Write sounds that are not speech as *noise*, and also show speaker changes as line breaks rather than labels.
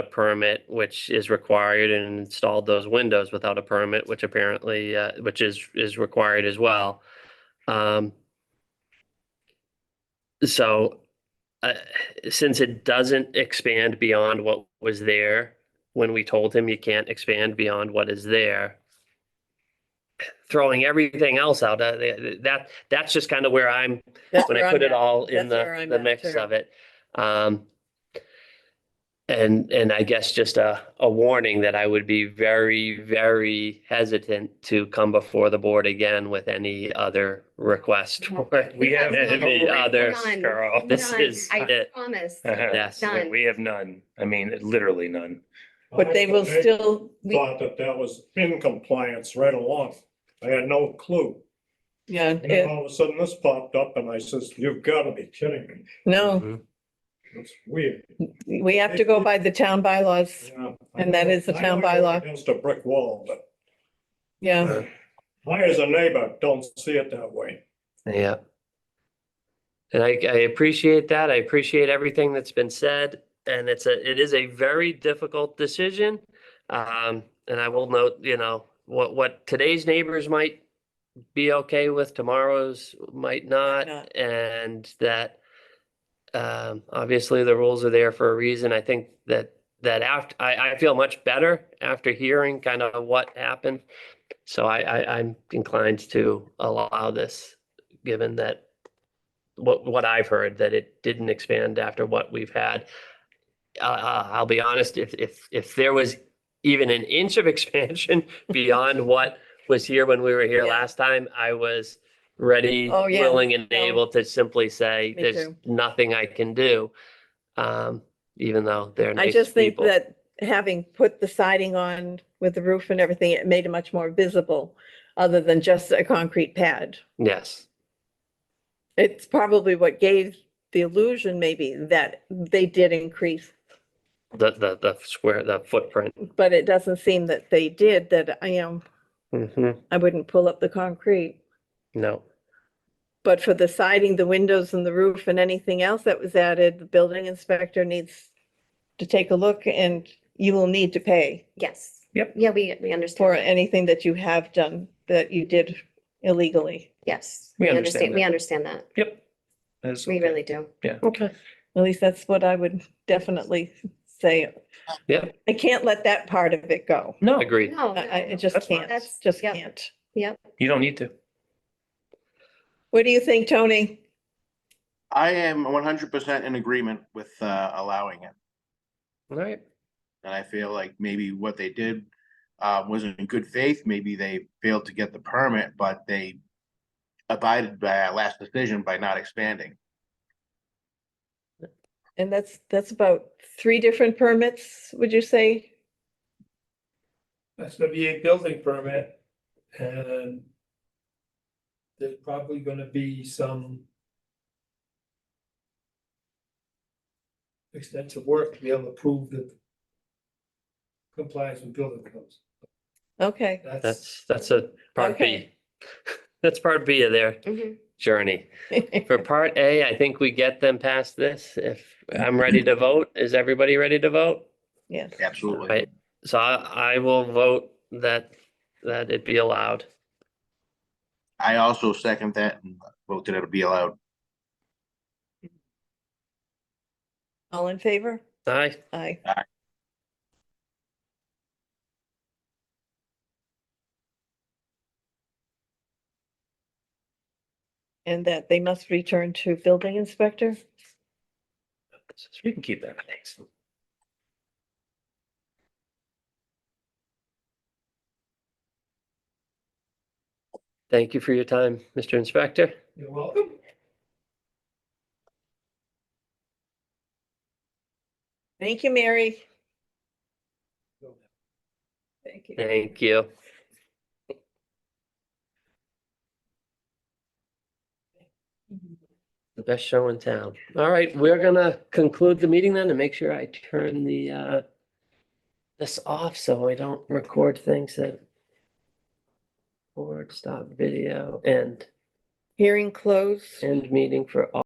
a permit, which is required, and installed those windows without a permit, which apparently, uh, which is, is required as well. Um, so, uh, since it doesn't expand beyond what was there, when we told him you can't expand beyond what is there, throwing everything else out, uh, that, that's just kind of where I'm
That's
when
where
I
I'm
put it
at.
all in
That's where
the,
I'm
the
at,
mix
too.
of it. Um, and, and I guess just a, a warning that I would be very, very hesitant to come before the board again with any other request.
No.
or
We have
Any
no
other,
request. None.
Girl.
this
None,
is
*laughs*
I
it.
promise.
Uh,
Yes.
None.
We have none. I mean, literally none.
But they will still, we-
Thought that that was in compliance right along. I had no clue.
yeah,
And then
it-
all of a sudden this popped up and I says, you've got to be kidding me.
no,
It's weird.
we have to go by the town bylaws.
Yeah.
And that is the
I
town
know you're
bylaw.
Against a brick wall, but
Yeah,
I as a neighbor don't see it that way.
Yeah. And I, I appreciate that. I appreciate everything that's been said. And it's a, it is a very difficult decision. Um, and I will note, you know, what, what today's neighbors might be okay with, tomorrow's might not.
not.
And that, um, obviously the rules are there for a reason. I think that, that after, I, I feel much better after hearing kind of what happened. So I, I, I'm inclined to allow this, given that what, what I've heard, that it didn't expand after what we've had. Uh, Uh, I'll be honest, if, if, if there was even an inch of *laughs* expansion beyond what was here when we were here
Yeah.
last time, I was ready,
Oh, yeah.
willing and
No.
able to simply say,
Me
there's
too.
nothing I can do. Um, even though they're
I
nice
just think
people.
that having put the siding on with the roof and everything, it made it much more visible other than just a concrete pad.
Yes,
It's probably what gave the illusion maybe that they did increase,
the, the, the square, the footprint.
but it doesn't seem that they did, that I am,
Mhm.
I wouldn't pull up the concrete.
No.
But for the siding, the windows and the roof and anything else that was added, the building inspector needs to take a look and you will need to pay
Yes.
Yep.
Yeah, we, we
for
understand.
anything that you have done that you did illegally.
Yes.
We understand
We
that.
understand that.
Yep. That's
We
okay.
really do.
Okay. At least that's what I would definitely say.
Yeah.
I can't let that part of it go.
No,
Agreed.
No,
I, I I
no.
just
That's fine.
can't,
That's-
just
yep.
can't.
Yep.
you don't need to.
What do you think, Tony?
I am one hundred percent in agreement with uh allowing it,
All right.
and I feel like maybe what they did. Uh, wasn't in good faith, maybe they failed to get the permit, but they. Abided by our last decision by not expanding.
And that's, that's about three different permits, would you say?
That's gonna be a building permit and there's probably gonna be some extensive work to be able to prove that compliance with building codes.
Okay, *laughs*
That's,
That's, that's a part B.
Okay.
*laughs* That's part B of their
Mhm.
journey. For part A, I think we get them past this. If I'm ready to vote, is everybody ready to vote?
yes.
Absolutely.
Right. So I, I will vote that, that it be allowed.
I also second that and vote that it'll be allowed.
All in favor?
Aye.
Aye.
Aye.
And that they must return to building inspector?
You can keep that. Thanks.
Thank you for your time, Mr. Inspector.
you're welcome.
Thank you, Mary. Thank you.
Thank you. The best show in town. All right, we're gonna conclude the meeting then and make sure I turn the, uh, this off so I don't record things that board stop video and
Hearing closed.
end meeting for all.